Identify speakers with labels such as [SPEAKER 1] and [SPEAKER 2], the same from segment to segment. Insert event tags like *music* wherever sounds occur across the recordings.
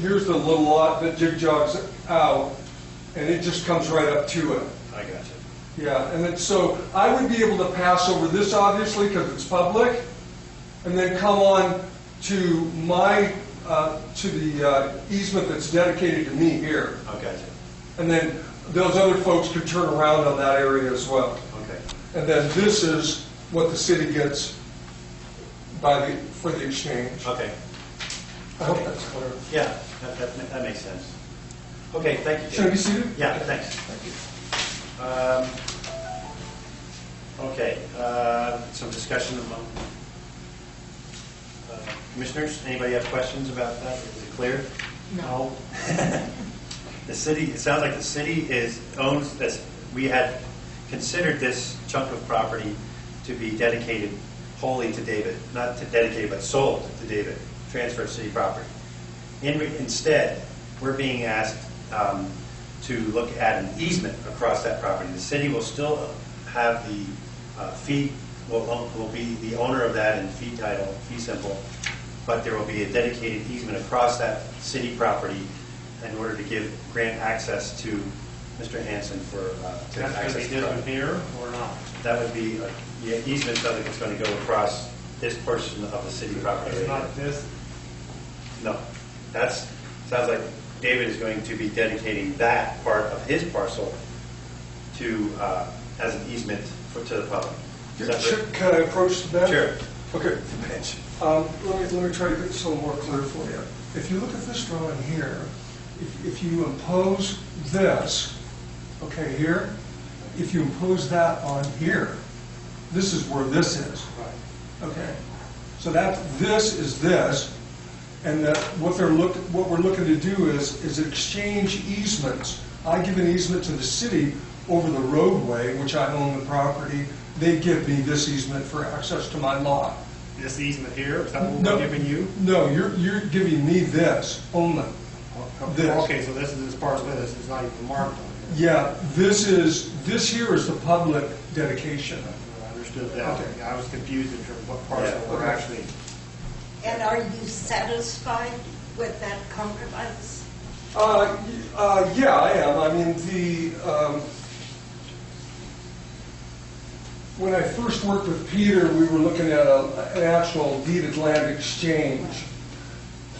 [SPEAKER 1] here's the little lot that jig jogs out, and it just comes right up to it.
[SPEAKER 2] I got you.
[SPEAKER 1] Yeah, and then, so I would be able to pass over this obviously because it's public, and then come on to my, uh, to the uh, easement that's dedicated to me here.
[SPEAKER 2] I got you.
[SPEAKER 1] And then those other folks could turn around on that area as well.
[SPEAKER 2] Okay.
[SPEAKER 1] And then this is what the city gets by the, for the exchange.
[SPEAKER 2] Okay.
[SPEAKER 1] I hope that's clear.
[SPEAKER 2] Yeah, that, that, ma- that makes sense. Okay, thank you. Dave.
[SPEAKER 1] Should I be seated?
[SPEAKER 2] Yeah, thanks. Thank you. Okay, uh, some discussion among uh, commissioners. Anybody have questions about that? Is it clear? No. *laughs* The city, it sounds like the city is, owns this, we had considered this chunk of property to be dedicated wholly to David, not to dedicated, but sold to David, transferred city property. In- Instead, we're being asked um, to look at an easement across that property. The city will still have the uh, fee, will own- will be the owner of that in fee title, fee simple, but there will be a dedicated easement across that city property in order to give grant access to Mr. Hanson for. uh, to
[SPEAKER 3] That's
[SPEAKER 2] access
[SPEAKER 3] going to
[SPEAKER 2] the
[SPEAKER 3] be different
[SPEAKER 2] property.
[SPEAKER 3] here or not?
[SPEAKER 2] That would be, uh, yeah, easement, something that's going to go across this portion of the city property.
[SPEAKER 3] It's not this,
[SPEAKER 2] No, that's, sounds like David is going to be dedicating that part of his parcel to, uh, as an easement for, to the public. Is that
[SPEAKER 1] Should-
[SPEAKER 2] right?
[SPEAKER 1] Can I approach that?
[SPEAKER 2] Sure.
[SPEAKER 1] Okay. Um, Let me, let me try to get this a little more clear for you. If you look at this drawing here, if- if you impose this, okay, here, if you impose that on here, this is where this is. Okay, so that, this is this, and that, what they're look, what we're looking to do is, is exchange easements. I give an easement to the city over the roadway, which I own the property, they give me this easement for access to my lot.
[SPEAKER 3] this easement here, is that what
[SPEAKER 1] No.
[SPEAKER 3] we're giving you?
[SPEAKER 1] No, you're, you're giving me this only. This.
[SPEAKER 3] Okay, so this is as far as with us, it's not even marked on here.
[SPEAKER 1] Yeah, this is, this here is the public dedication.
[SPEAKER 3] I understood that.
[SPEAKER 1] Okay.
[SPEAKER 3] I was confused in terms of what parcel
[SPEAKER 2] Yeah.
[SPEAKER 3] we're
[SPEAKER 1] Okay.
[SPEAKER 3] actually,
[SPEAKER 4] And are you satisfied with that compromise?
[SPEAKER 1] Uh, y- uh, yeah, I am. I mean, the, um, when I first worked with Peter, we were looking at a, an actual deeded land exchange.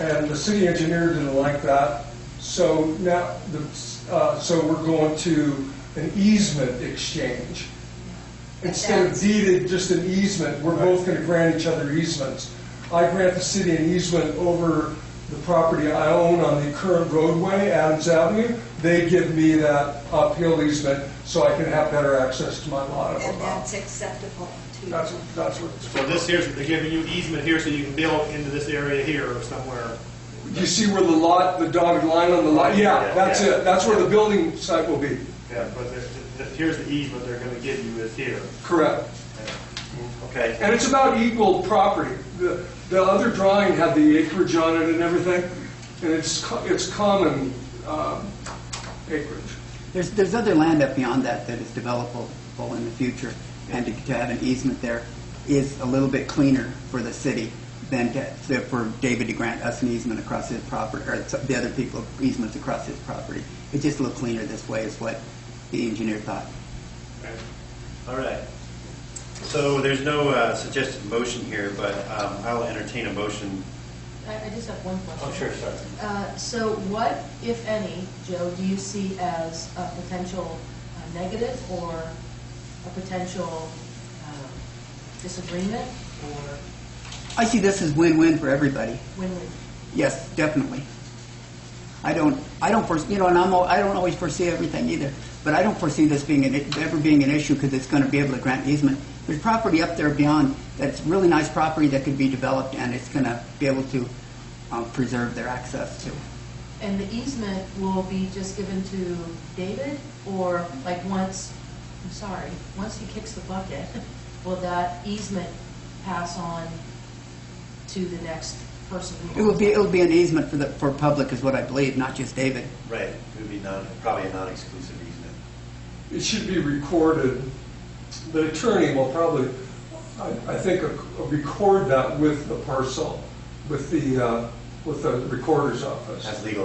[SPEAKER 1] And the city engineer didn't like that. So now, the, uh, so we're going to an easement exchange. Instead of
[SPEAKER 4] That's-
[SPEAKER 1] deeded, just an easement, we're both going to grant each other easements. I grant the city an easement over the property I own on the current roadway, Adams Avenue. They give me that uphill easement so I can have better access to my lot.
[SPEAKER 4] And that's acceptable to you?
[SPEAKER 1] That's, that's what it's for.
[SPEAKER 3] so this here's, they're giving you easement here so you can build into this area here or somewhere.
[SPEAKER 1] You see where the lot, the dotted line on the lot? Yeah, that's it. That's where the building site will be.
[SPEAKER 3] Yeah, but this, this- here's the easement they're going to give you is here.
[SPEAKER 1] Correct.
[SPEAKER 2] Okay,
[SPEAKER 1] And it's about equal property. The, the other drawing had the acreage on it and everything, and it's, co- it's common um, acreage.
[SPEAKER 5] There's, there's other land up beyond that that is developable in the future, and to to have an easement there is a little bit cleaner for the city than to, so for David to grant us an easement across his property, or so- the other people easements across his property. It's just a little cleaner this way is what the engineer thought.
[SPEAKER 3] Okay.
[SPEAKER 2] all right. So there's no uh, suggested motion here, but um, I'll entertain a motion.
[SPEAKER 6] I I just have one question.
[SPEAKER 2] Oh, sure, sorry.
[SPEAKER 6] Uh, So what, if any, Joe, do you see as a potential uh, negative or a potential um, disagreement or
[SPEAKER 5] I see this as win-win for everybody.
[SPEAKER 6] win-win?
[SPEAKER 5] Yes, definitely. I don't, I don't foresee, you know, and I'm, al- I don't always foresee everything either, but I don't foresee this being, an i- ever being an issue because it's going to be able to grant easement. There's property up there beyond that's really nice property that could be developed and it's going to be able to um, preserve their access to.
[SPEAKER 6] And the easement will be just given to David or like once, I'm sorry, once he kicks the bucket, *laughs* will that easement pass on to the next person? who
[SPEAKER 5] It would be,
[SPEAKER 6] owns
[SPEAKER 5] it would be an easement for the, for public is what I believe, not just David.
[SPEAKER 2] Right, it would be non, probably a non-exclusive easement.
[SPEAKER 1] It should be recorded. The attorney will probably, I I think, uh, record that with the parcel, with the, uh,
[SPEAKER 7] with the recorder's office.
[SPEAKER 1] That's legal